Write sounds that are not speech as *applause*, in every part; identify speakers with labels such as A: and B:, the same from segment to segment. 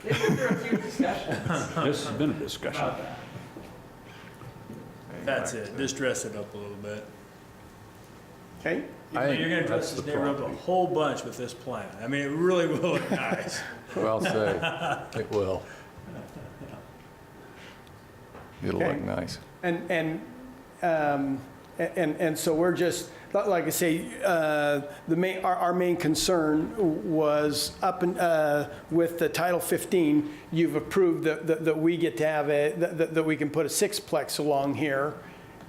A: *laughs*
B: This has been a discussion.
C: That's it, just dress it up a little bit.
D: Okay,
C: You
E: I
C: know,
E: think
C: You're gonna
E: that's
C: dress this
E: the
C: neighborhood up a
E: property.
C: whole bunch with this plan. I mean, it really will look *laughs* nice.
E: Well said.
B: *laughs*
E: It will.
F: It'll
D: Okay.
F: look nice.
D: and, and, um, a- and, and so we're just, li- like I say, uh, the main, our, our main concern was up and, uh, with the Title 15, you've approved that, that, that we get to have a, that, that- that we can put a sixplex along here.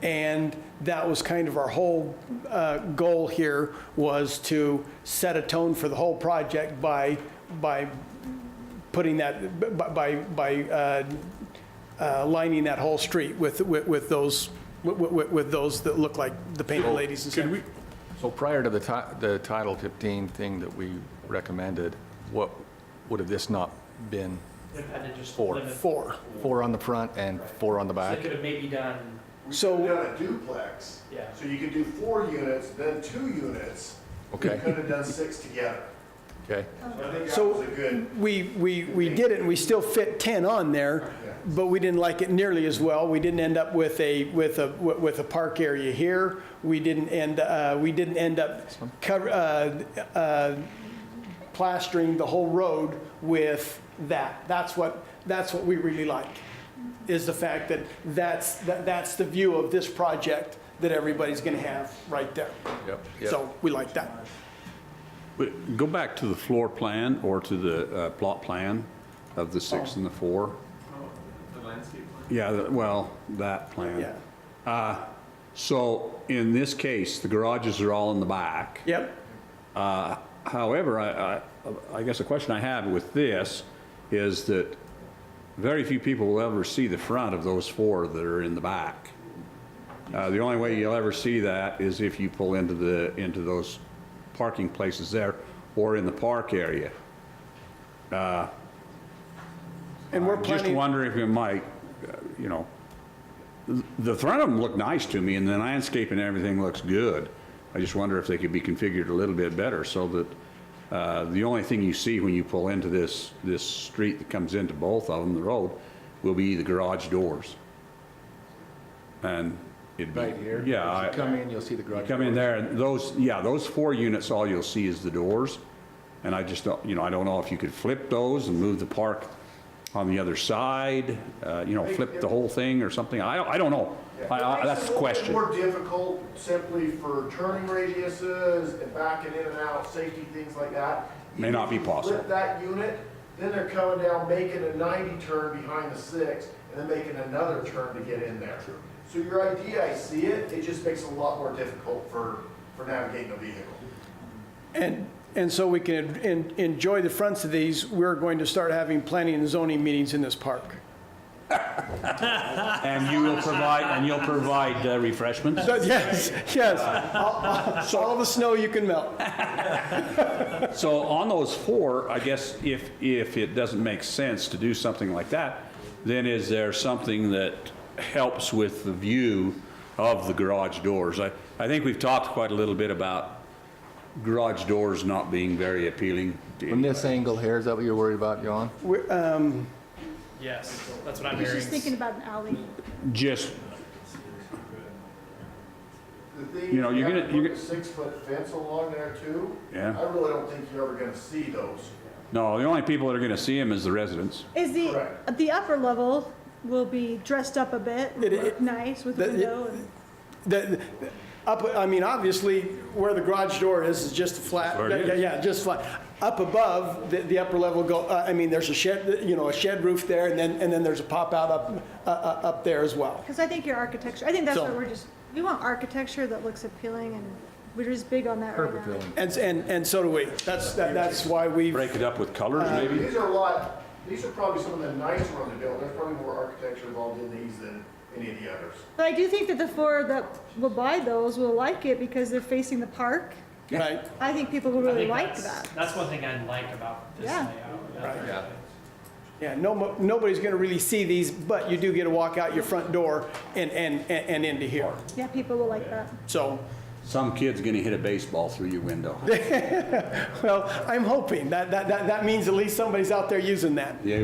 D: And that was kind of our whole, uh, goal here, was to set a tone for the whole project by, by putting that, b- by, by, uh, uh, lining that whole street with, with, with those, with, with, with those that look like the painted ladies and stuff.
F: So prior to the ti- the Title 15 thing that we recommended, what would have this not been?
A: Had to just
F: Four.
A: limit-
D: Four.
F: Four on the front and four on the
A: So
F: back?
A: they could have maybe done,
G: We
D: So-
G: could have done a duplex.
A: Yeah.
G: So you could do four units, then two units.
F: Okay.
G: You could have done six together.
F: Okay,
G: So I think that
D: So-
G: was a good,
D: We, we, we did it and we still fit 10 on there, but we didn't like it nearly as well. We didn't end up with a, with a, with a park area here. We didn't end, uh, we didn't end up cover, uh, uh, plastering the whole road with that. That's what, that's what we really like, is the fact that that's, that that's the view of this project that everybody's going to have right there.
F: yep, yep.
D: So we like that.
B: But Go back to the floor plan or to the uh, plot plan of the six and the four. Oh, The landscape plan? Yeah, the- well, that plan.
D: Yeah.
B: So in this case, the garages are all in the back.
D: Yep.
B: Uh, However, I, I- I guess the question I have with this is that very few people will ever see the front of those four that are in the back. Uh, The only way you'll ever see that is if you pull into the, into those parking places there or in the park area.
D: And we're
B: Just
D: planning.
B: wondering if it might, uh, you know, th- the front of them look nice to me and the landscape and everything looks good. I just wonder if they could be configured a little bit better so that uh, the only thing you see when you pull into this, this street that comes into both of them, the road, will be the garage doors. And it'd be.
F: Right here?
B: Yeah.
F: As you
B: I-
F: come in, you'll see the
B: you
F: garage.
B: come in there, and those, yeah, those four units, all you'll see is the doors. And I just don't, you know, I don't know if you could flip those and move the park on the other side, uh, you know, flip the whole thing or something. I, don't- I don't know. I- I- That's the question.
G: More difficult simply for turning radiuses and backing in and out, safety, things like that.
B: May not be
G: If you flip
B: possible.
G: that unit, then they're coming down, making a 90 turn behind the six, and then making another turn to get in there. So your idea, I see it, it just makes it a lot more difficult for, for navigating a vehicle.
D: And, and so we can en- enjoy the fronts of these, we're going to start having planning and zoning meetings in this park.
B: And you will provide, and you'll provide uh, refreshments?
D: But yes, yes,
B: *laughs*
D: all- all all the snow you can melt.
B: So on those four, I guess if, if it doesn't make sense to do something like that, then is there something that helps with the view of the garage doors? I, I think we've talked quite a little bit about garage doors not being very appealing. to
F: From this angle here, is that what you're worried about, John?
D: um,
A: yes, that's what I'm
H: He's
A: hearing.
H: just thinking about an alley.
B: Just,
G: The thing,
B: You know,
G: is,
B: you're
G: you
B: gonna-
G: have
B: you're
G: to put a
B: gonna-
G: six-foot fence along there too.
B: Yeah.
G: I really don't think you're ever gonna see those.
B: no, the only people that are going to see them is the residents.
H: Is the,
G: Correct.
H: the upper level will be dressed up a bit,
D: It- it-
H: look nice with
D: that-
H: window and.
D: The, the- up, I mean, obviously, where the garage door is, is just a flat.
B: Where it is.
D: yeah, Yeah, just flat. Up above, the, the upper level go, uh, I mean, there's a shed, you know, a shed roof there, and then, and then there's a pop-out up, uh, uh, up there as well.
H: Because I think your architecture, I think that's
D: So-
H: what we're just, we want architecture that looks appealing and we're just big on that right now.
F: Perfect, Dylan.
D: And, and, and so do we. That's, that- that's why we
B: Break it up with colors, maybe?
G: These are a lot, these are probably some of the nicer ones they built. There's probably more architecture involved in these than any of the others.
H: But I do think that the four that will buy those will like it because they're facing the park.
D: right?
H: I think people will
A: I
H: really
A: think
H: like
A: that's-
H: that.
A: That's one thing I like about this
H: Yeah.
A: layout.
D: Yeah, no, mo- nobody's going to really see these, but you do get to walk out your front door and, and, and and into here.
H: Yeah, people will like that.
D: So,
B: Some kid's going to hit a baseball through your window.
D: well, I'm hoping that, that, that that means at least somebody's out there using that.
B: Yeah,